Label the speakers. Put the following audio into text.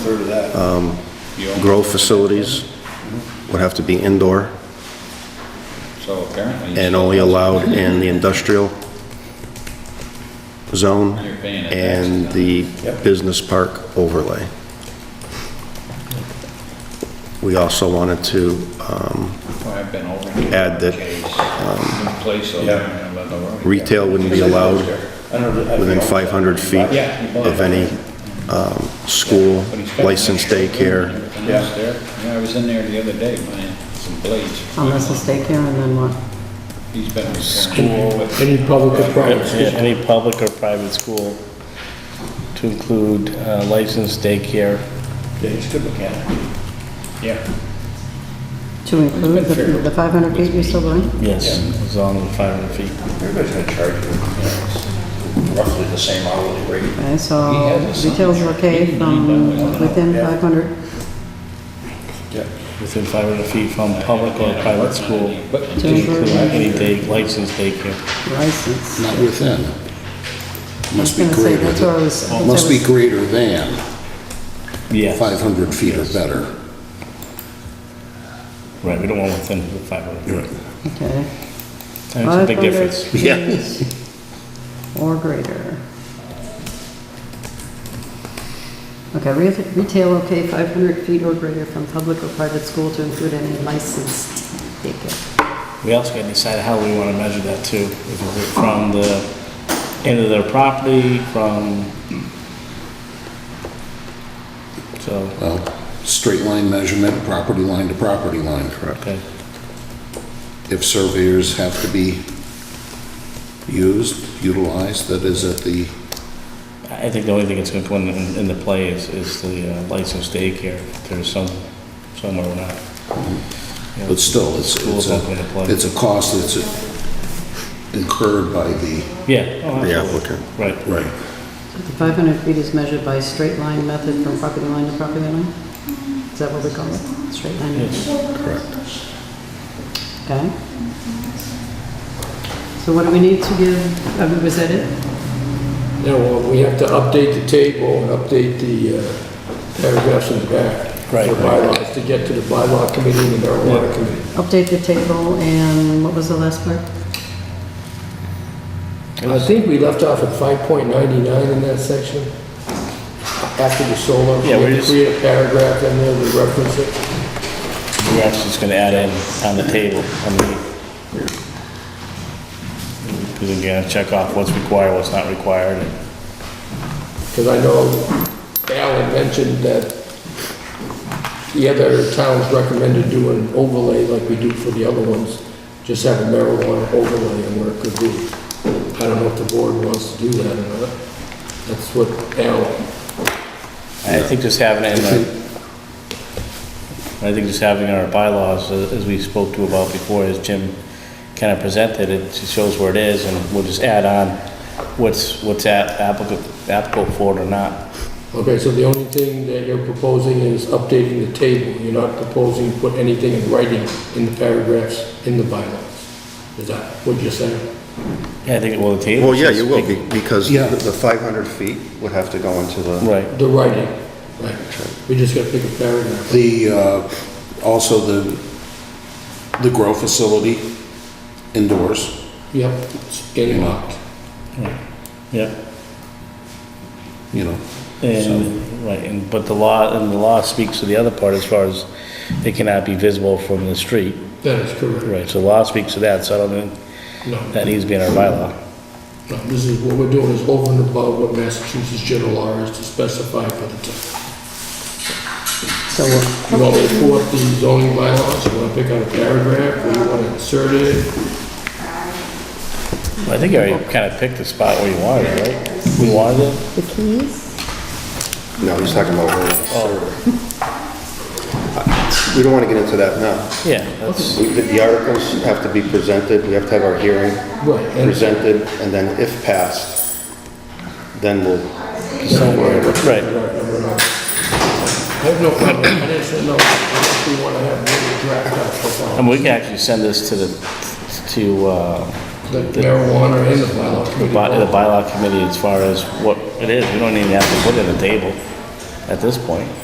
Speaker 1: heard of that.
Speaker 2: Uh, Grow facilities would have to be indoor
Speaker 3: So apparently.
Speaker 2: and only allowed in the industrial zone
Speaker 3: You're paying it.
Speaker 2: and the
Speaker 1: Yep.
Speaker 2: business park overlay. We also wanted to, um,
Speaker 3: Well, I've been over here.
Speaker 2: add that,
Speaker 3: that. Place over
Speaker 1: yeah.
Speaker 3: there and let the world-
Speaker 2: retail wouldn't be allowed
Speaker 1: I don't know, I-
Speaker 2: within 500 feet
Speaker 1: Yeah.
Speaker 2: of any um, school,
Speaker 3: But he's got
Speaker 2: licensed
Speaker 3: an extra room
Speaker 2: daycare.
Speaker 3: and everything
Speaker 1: Yeah.
Speaker 3: else there. Yeah, I was in there the other day buying some blades.
Speaker 4: Unless it's daycare and then what?
Speaker 3: He's been.
Speaker 5: School,
Speaker 3: But
Speaker 5: any public or private
Speaker 6: Yeah,
Speaker 5: school.
Speaker 6: Any public or private school to include uh, licensed daycare.
Speaker 1: Yeah, he's a good mechanic.
Speaker 3: Yeah.
Speaker 4: To include the the 500 feet you're still going?
Speaker 6: Yes, as long as 500 feet.
Speaker 1: Everybody's gonna charge you, you know, roughly the same hourly rate.
Speaker 4: Okay, so retail's okay from within 500?
Speaker 6: Within 500 feet from public or private school
Speaker 3: But
Speaker 4: To
Speaker 6: to include
Speaker 4: include
Speaker 6: any day, licensed daycare.
Speaker 4: license.
Speaker 7: Not within. Must be
Speaker 4: I was gonna say,
Speaker 7: greater
Speaker 4: that's what I was-
Speaker 7: than, must be
Speaker 4: that's what
Speaker 7: greater than
Speaker 6: Yeah,
Speaker 7: 500 feet or better.
Speaker 6: right, we don't want within the 500 feet.
Speaker 4: Okay.
Speaker 6: And It's a big
Speaker 4: 500
Speaker 6: difference.
Speaker 7: Yeah.
Speaker 4: feet Or greater. Okay, re- retail, okay, 500 feet or greater from public or private school to include any licensed daycare.
Speaker 6: We also gotta decide how we wanna measure that too. If it's from the end of their property, from... So,
Speaker 7: Well, straight line measurement, property line to property line. Correct.
Speaker 6: okay.
Speaker 7: If surveyors have to be used, utilized, that is at the,
Speaker 6: I think the only thing that's gonna come in- into play is, is the uh, licensed daycare, if there's some, somewhere or not. You know,
Speaker 7: but still, it's, it's
Speaker 6: Schools not gonna
Speaker 7: a,
Speaker 6: play.
Speaker 7: it's a cost that's incurred by the.
Speaker 6: Yeah. oh,
Speaker 2: The
Speaker 6: absolutely.
Speaker 2: applicant.
Speaker 6: Right.
Speaker 7: Right.
Speaker 4: The 500 feet is measured by straight line method from property line to property line? Is that what we call it? Straight line method? Okay. So what do we need to give, uh, was that it?
Speaker 5: Yeah, well, uh, we have to update the table and update the uh, paragraphs in the back.
Speaker 6: Right,
Speaker 5: For
Speaker 6: right.
Speaker 5: bylaws, to get to the bylaw committee and the marijuana committee.
Speaker 4: Update the table, and what was the last part?
Speaker 5: And I think we left off at 5.99 in that section, after the solar.
Speaker 6: Yeah, we're
Speaker 5: We
Speaker 6: just-
Speaker 5: create a paragraph in there to reference it.
Speaker 6: We're actually just gonna add in on the table, on the... Because again, uh, check off what's required, what's not required, and
Speaker 5: Because I know Alan mentioned that the other towns recommended doing overlay like we do for the other ones, just have a marijuana overlay and where it could be. I don't know if the board wants to do that or not. That's what Alan,
Speaker 6: I think just having it in our, I think just having in our bylaws, uh, as we spoke to about before, as Jim kind of presented, it just shows where it is, and we'll just add on what's, what's a- applicable, applicable for it or not.
Speaker 5: okay, so the only thing that you're proposing is updating the table. You're not proposing to put anything in writing in the paragraphs in the bylaws. Is that what you're saying?
Speaker 6: Yeah, I think, well, the table.
Speaker 2: Well, yeah,
Speaker 6: says-
Speaker 2: you will, be- because
Speaker 7: Yeah.
Speaker 2: the the 500 feet would have to go into the...
Speaker 6: Right,
Speaker 5: The writing, right. We just gotta pick a paragraph.
Speaker 7: The, uh, also the, the grow facility indoors.
Speaker 5: Yep, it's getting locked.
Speaker 6: yeah.
Speaker 7: you know,
Speaker 6: And, right, and, but the law, and the law speaks to the other part as far as it cannot be visible from the street.
Speaker 5: That is correct.
Speaker 6: Right, so the law speaks to that, so I don't think
Speaker 5: No,
Speaker 6: that needs to be in our bylaw.
Speaker 5: no, this is, what we're doing is over and above what Massachusetts general law is to specify for the town.
Speaker 4: So what?
Speaker 5: You want me to pull up the zoning bylaws, you wanna pick out a paragraph, or you wanna insert it?
Speaker 6: I think you already kind of picked the spot where you wanted it, right? We wanted it?
Speaker 8: The keys?
Speaker 2: No, he's talking about rural
Speaker 5: Oh.
Speaker 2: survey. We don't want to get into that now.
Speaker 6: Yeah, that's,
Speaker 2: We- The the articles have to be presented, we have to have our hearing
Speaker 5: Right, and-
Speaker 2: presented, and then if passed, then we'll,
Speaker 6: right.
Speaker 5: I have no problem, I didn't know if we wanna have maybe a draft up for
Speaker 6: And we can actually send this to the, to, uh,
Speaker 5: the marijuana in the bylaw
Speaker 6: the
Speaker 5: committee.
Speaker 6: by- the bylaw committee as far as what it is. We don't even have to put it on the table at this point.